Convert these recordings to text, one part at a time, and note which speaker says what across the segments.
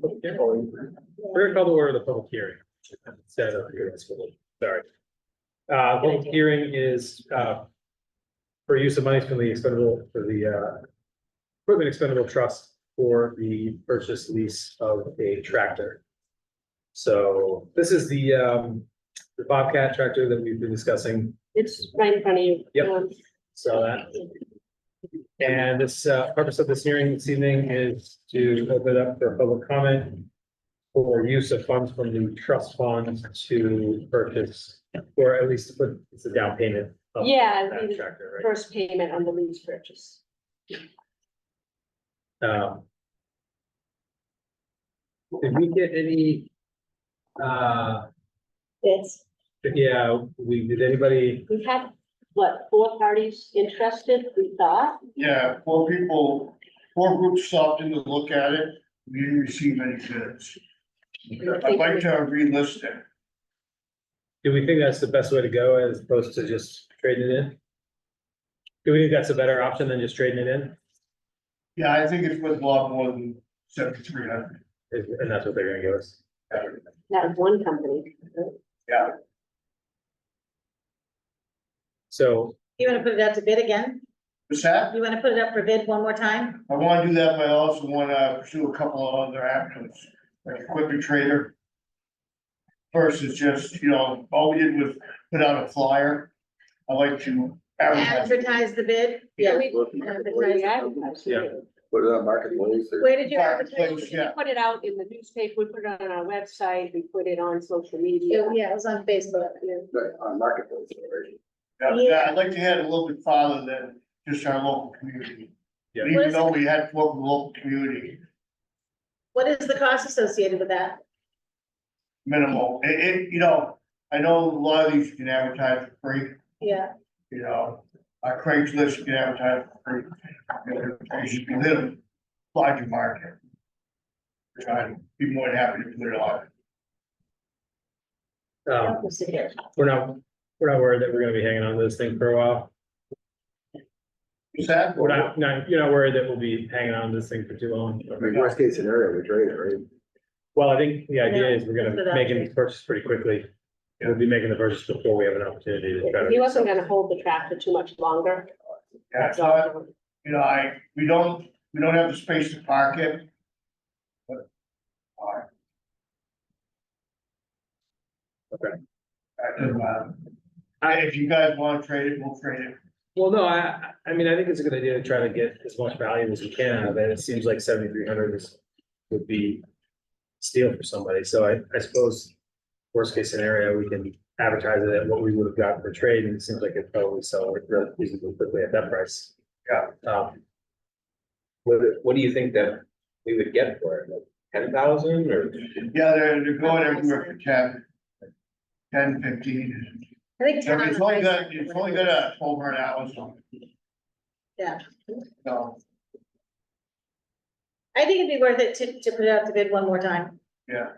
Speaker 1: public hearing. We're gonna call the order of the public hearing. Instead of, sorry. Uh, public hearing is, uh. For use of monies from the expendable, for the, uh. Equipment expendable trust for the purchase lease of a tractor. So this is the, um, the Bobcat tractor that we've been discussing,
Speaker 2: It's right in front of you.
Speaker 1: Yep.
Speaker 2: Um,
Speaker 1: so that. And this, uh, purpose of this hearing this evening is to open up for public comment. For use of funds from the trust fund to purchase, or at least to put, it's a down payment. of
Speaker 2: Yeah,
Speaker 1: That
Speaker 2: it'd be the
Speaker 1: tractor, Oh, right?
Speaker 2: First payment on the lease purchase.
Speaker 1: Um. Did we get any? Uh,
Speaker 2: It's,
Speaker 1: yeah, we, did anybody,
Speaker 2: we've had, what, four parties interested, we thought?
Speaker 3: Yeah, four people, four groups stopped in to look at it, we didn't receive any bids. I'd like to relist it,
Speaker 1: do we think that's the best way to go as opposed to just trading it in? Do we think that's a better option than just trading it in?
Speaker 3: yeah, I think it's worth a lot more than seventy-three hundred.
Speaker 1: Is- And that's what they're gonna give us.
Speaker 2: That was one company.
Speaker 1: So,
Speaker 4: You wanna put it out to bid again?
Speaker 3: What's that?
Speaker 4: You wanna put it up for bid one more time?
Speaker 3: I wanna do that, but I also wanna pursue a couple of other avenues, like equipment trader. Versus just, you know, all we did was put out a flyer, I like to advertise.
Speaker 4: Advertise the bid?
Speaker 2: Yeah,
Speaker 4: We-
Speaker 2: we- We advertised it.
Speaker 5: Put it on marketplace or
Speaker 4: Where did you advertise?
Speaker 3: Marketplace.
Speaker 2: We put it out in the newspaper, we put it on our website, we put it on social media.
Speaker 4: Yeah, it was on Facebook.
Speaker 5: but on marketplace already.
Speaker 3: Yeah,
Speaker 4: Yeah.
Speaker 3: I'd like to head a little bit farther than just our local community.
Speaker 1: Yeah.
Speaker 3: Even though we had to work with local community,
Speaker 4: What is the cost associated with that?
Speaker 3: minimal, it, it, you know, I know a lot of these you can advertise for free,
Speaker 4: Yeah,
Speaker 3: you know. Our Craigslist you can advertise for free, you know, you can hit a larger market. You know, I'd be more than happy to put it on,
Speaker 1: um, we're not, we're not worried that we're gonna be hanging on to this thing for a while.
Speaker 3: is that?
Speaker 1: We're not, not, you're not worried that we'll be hanging on to this thing for too long.
Speaker 5: I mean, worst case scenario, we trade it, right?
Speaker 1: Well, I think the idea is we're
Speaker 4: that's
Speaker 1: gonna
Speaker 4: what
Speaker 1: make
Speaker 4: I'm-
Speaker 1: any purchase pretty quickly. We'll be making the purchase before we have an opportunity to try to.
Speaker 2: He wasn't gonna hold the tractor too much longer.
Speaker 3: Yeah, it's not- you know, I, we don't, we don't have the space to park it. But, alright.
Speaker 1: Okay.
Speaker 3: That doesn't matter. uh, I, if you guys wanna trade it, we'll trade it.
Speaker 1: Well, no, I, I I mean, I think it's a good idea to try to get as much value as we can out of it. It seems like seventy-three hundred is, would be steal for somebody. So I, I suppose worst case scenario, we can advertise it at what we would have gotten for trade and it seems like it probably sell reasonably quickly at that price. Yeah. Um,
Speaker 6: What, what do you think that we would get for it, like ten thousand or?
Speaker 3: Yeah, they're, they're going everywhere for ten. Ten, fifteen.
Speaker 4: I think.
Speaker 3: So
Speaker 4: ten on
Speaker 3: It's
Speaker 4: the
Speaker 3: only
Speaker 4: price.
Speaker 3: got, it's only got a twelve hundred hours on it.
Speaker 4: Yeah.
Speaker 3: So,
Speaker 4: I think it'd be worth it to, to put it out to bid one more time.
Speaker 3: and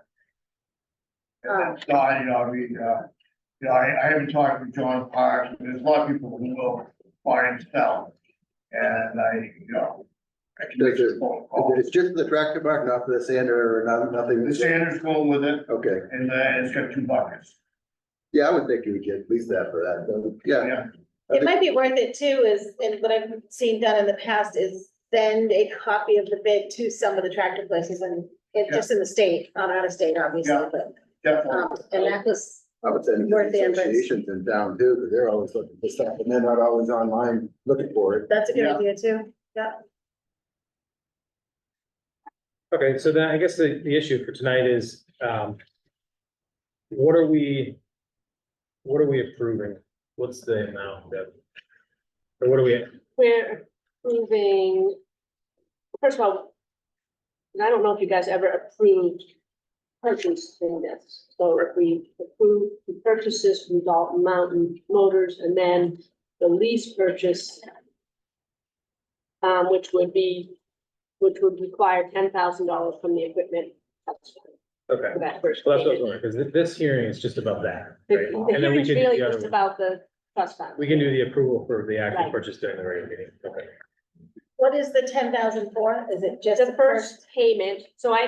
Speaker 3: that's not, you know, I mean, uh, you know, I, I haven't talked with John Parks, but there's a lot of people who will buy and sell. And I, you know. I can make this phone call.
Speaker 5: It's just for the tractor mark, not for the sander or not, nothing.
Speaker 3: The Sanders going with it,
Speaker 5: Okay,
Speaker 3: and uh, it's got two buckets.
Speaker 5: yeah, I would think you would get at least that for that, but yeah.
Speaker 3: Yeah.
Speaker 5: I
Speaker 4: It
Speaker 5: think-
Speaker 4: might be worth it too is, and what I've seen done in the past is send a copy of the bid to some of the tractor places and it just in the state, not out of state, obviously,
Speaker 3: Yeah.
Speaker 4: but,
Speaker 3: Definitely.
Speaker 4: um, and that was
Speaker 5: I would send it to
Speaker 4: Worth the
Speaker 5: the
Speaker 4: investment.
Speaker 5: associations in town too, because they're always looking for stuff and they're not always online looking for it.
Speaker 4: That's a good
Speaker 3: Yeah.
Speaker 4: idea too.
Speaker 1: okay, so then I guess the, the issue for tonight is, um, what are we, what are we approving? What's the amount that? Or what are we,
Speaker 2: We're approving, first of all, and I don't know if you guys ever approved purchasing this. So if we approve the purchases from Dalton Mountain Motors and then the lease purchase, um, which would be, which would require ten thousand dollars from the equipment for
Speaker 1: okay.
Speaker 2: that first
Speaker 1: Well, that's what I was
Speaker 2: payment.
Speaker 1: wondering, because thi- this hearing is just about that,
Speaker 2: The
Speaker 1: right?
Speaker 2: the
Speaker 1: And then we
Speaker 2: hearing's
Speaker 1: can do
Speaker 2: really
Speaker 1: the other
Speaker 2: just
Speaker 1: one.
Speaker 2: about the trust fund.
Speaker 1: We can do the approval for the actual
Speaker 2: Right.
Speaker 1: purchase during the regular meeting, okay.
Speaker 4: What is the ten thousand for? Is it just
Speaker 2: The first payment, so I